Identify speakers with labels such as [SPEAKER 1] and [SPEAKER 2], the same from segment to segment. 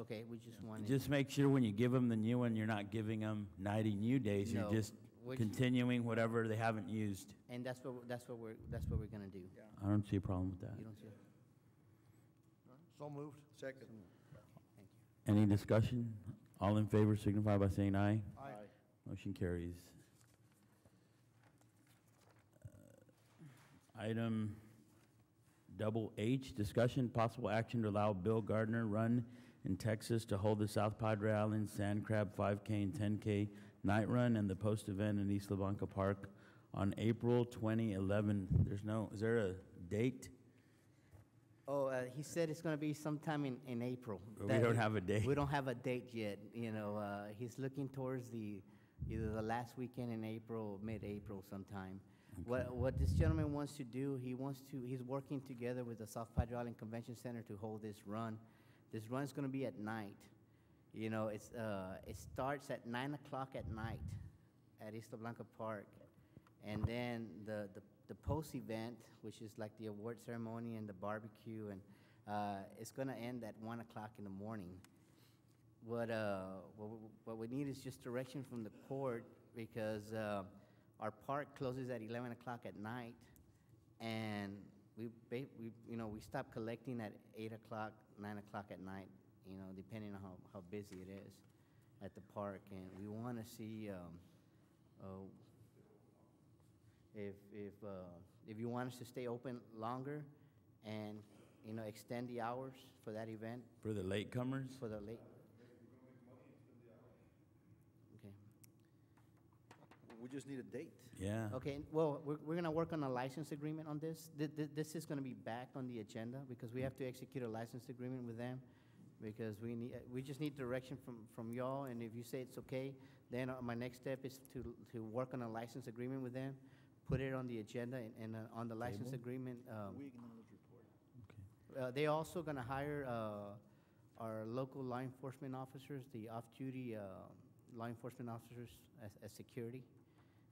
[SPEAKER 1] Okay, we just wanted.
[SPEAKER 2] Just make sure when you give them the new one, you're not giving them 90 new days.
[SPEAKER 1] No,
[SPEAKER 2] You're just
[SPEAKER 1] which-
[SPEAKER 2] continuing whatever they haven't used.
[SPEAKER 1] And that's what, we're- that's what we're, that's what we're gonna do.
[SPEAKER 2] I don't see a problem with
[SPEAKER 1] You
[SPEAKER 2] that.
[SPEAKER 1] don't see,
[SPEAKER 3] So moved. Second.
[SPEAKER 1] thank you.
[SPEAKER 2] Any discussion? All in favor signify by saying aye.
[SPEAKER 3] Aye.
[SPEAKER 2] Motion carries. Uh, Item double H, discussion, possible action to allow Bill Gardner Run in Texas to hold the South Padre Island Sand Crab 5K and 10K night run and the post-event in East Levanca Park on April 2011. There's no, is there a date?
[SPEAKER 1] Oh, uh, he said it's gonna be sometime in, in April.
[SPEAKER 2] We
[SPEAKER 1] That-
[SPEAKER 2] don't have a date.
[SPEAKER 1] We don't have a date yet, you know, uh, he's looking towards the, either the last weekend in April, mid-April sometime. What, what this gentleman wants to do, he wants to, he's working together with the South Padre Island Convention Center to hold this run. This run's gonna be at night. You know, it's, uh, it starts at nine o'clock at night at Isla Blanca Park. And then the, the, the post-event, which is like the award ceremony and the barbecue, and, uh, it's gonna end at one o'clock in the morning. What, uh, what, we- what we need is just direction from the court, because, uh, our park closes at eleven o'clock at night, and we, ba- we, you know, we stop collecting at eight o'clock, nine o'clock at night, you know, depending on how, how busy it is at the park, and we wanna see, um, uh, if, if, uh, if you want us to stay open longer and, you know, extend the hours for that event,
[SPEAKER 2] For the latecomers?
[SPEAKER 1] for the late. Okay,
[SPEAKER 3] We just need a date.
[SPEAKER 2] Yeah.
[SPEAKER 1] okay, well, we're, we're gonna work on a license agreement on this. Th- th- This is gonna be back on the agenda because we have to execute a license agreement with them because we need, we just need direction from, from y'all, and if you say it's okay, then uh, my next step is to, to work on a license agreement with them, put it on the agenda and, and uh, on the license agreement, um,
[SPEAKER 3] acknowledge report.
[SPEAKER 2] Okay.
[SPEAKER 1] Uh, They also going to hire uh, our local law enforcement officers, the off-duty uh, law enforcement officers as, as security.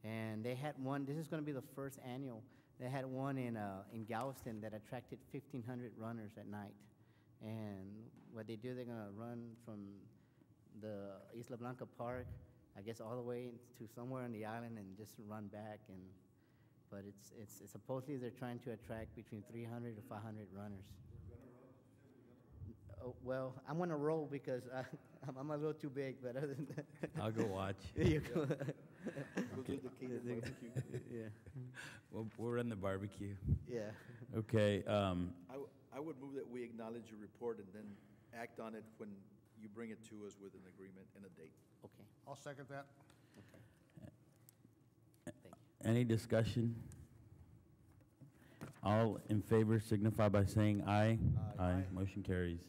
[SPEAKER 1] And they had one, this is going to be the first annual, they had one in, uh, in Galveston that attracted 1,500 runners at night. And what they do, they're going to run from the Isla Blanca Park, I guess all the way to somewhere on the island and just run back and but it's, it's it's supposedly they're trying to attract between 300 to 500 runners. Oh, Well, I'm on a roll because I- I'm I'm a little too big, but other than that.
[SPEAKER 2] I'll go watch.
[SPEAKER 1] You go-
[SPEAKER 3] We'll do the Caden barbecue.
[SPEAKER 1] Yeah,
[SPEAKER 2] We'll, we'll run the barbecue.
[SPEAKER 1] yeah.
[SPEAKER 2] Okay, um,
[SPEAKER 3] I, w- I would move that we acknowledge your report and then act on it when you bring it to us with an agreement and a date.
[SPEAKER 1] Okay,
[SPEAKER 4] I'll second that.
[SPEAKER 1] okay. Thank you.
[SPEAKER 2] Any discussion? All in favor signify by saying aye. Aye. Motion carries.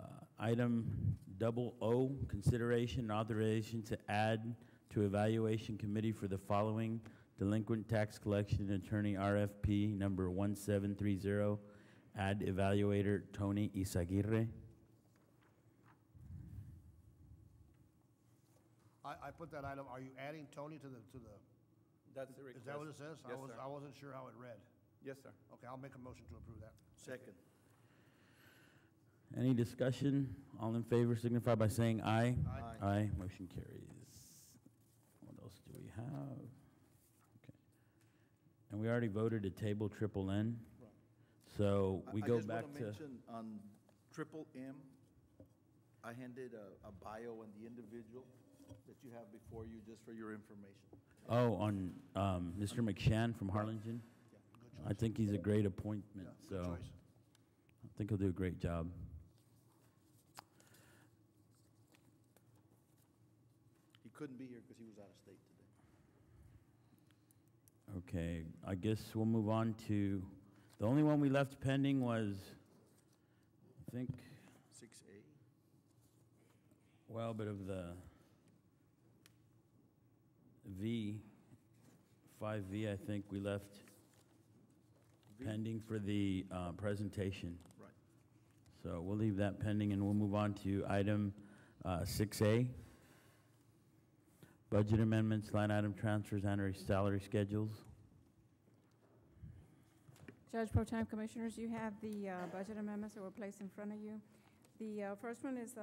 [SPEAKER 2] Uh, Item double O, consideration and authorization to add to evaluation committee for the following delinquent tax collection attorney RFP number 1730, add evaluator Tony Isaguirre.
[SPEAKER 4] I, I put that item, are you adding Tony to the, to the,
[SPEAKER 5] That's the request.
[SPEAKER 4] is that what it says? I
[SPEAKER 5] Yes,
[SPEAKER 4] was-
[SPEAKER 5] sir.
[SPEAKER 4] I wasn't sure how it read.
[SPEAKER 5] Yes, sir.
[SPEAKER 4] Okay, I'll make a motion to approve that.
[SPEAKER 3] Second.
[SPEAKER 2] Any discussion? All in favor signify by saying aye.
[SPEAKER 4] Aye.
[SPEAKER 2] Aye, motion carries. What else do we have? Okay. And we already voted to table triple N. So
[SPEAKER 3] I-
[SPEAKER 2] we go back to,
[SPEAKER 3] I just want to mention on triple M, I handed a, a bio on the individual that you have before you, just for your information.
[SPEAKER 2] oh, on um, Mr. McShan from Harlingen. I think he's a great appointment,
[SPEAKER 4] Good
[SPEAKER 2] so
[SPEAKER 4] choice.
[SPEAKER 2] I think he'll do a great job.
[SPEAKER 3] He couldn't be here because he was out of state today.
[SPEAKER 2] Okay, I guess we'll move on to, the only one we left pending was, I think,
[SPEAKER 3] Six A?
[SPEAKER 2] Well, but of the V, 5V, I think we left pending for the uh, presentation.
[SPEAKER 3] Right.
[SPEAKER 2] So we'll leave that pending, and we'll move on to item uh, 6A, budget amendments, line item transfers, and salary schedules.
[SPEAKER 6] Judge Pro Tem Commissioners, you have the uh, budget amendments that were placed in front of you. The uh, first one is uh,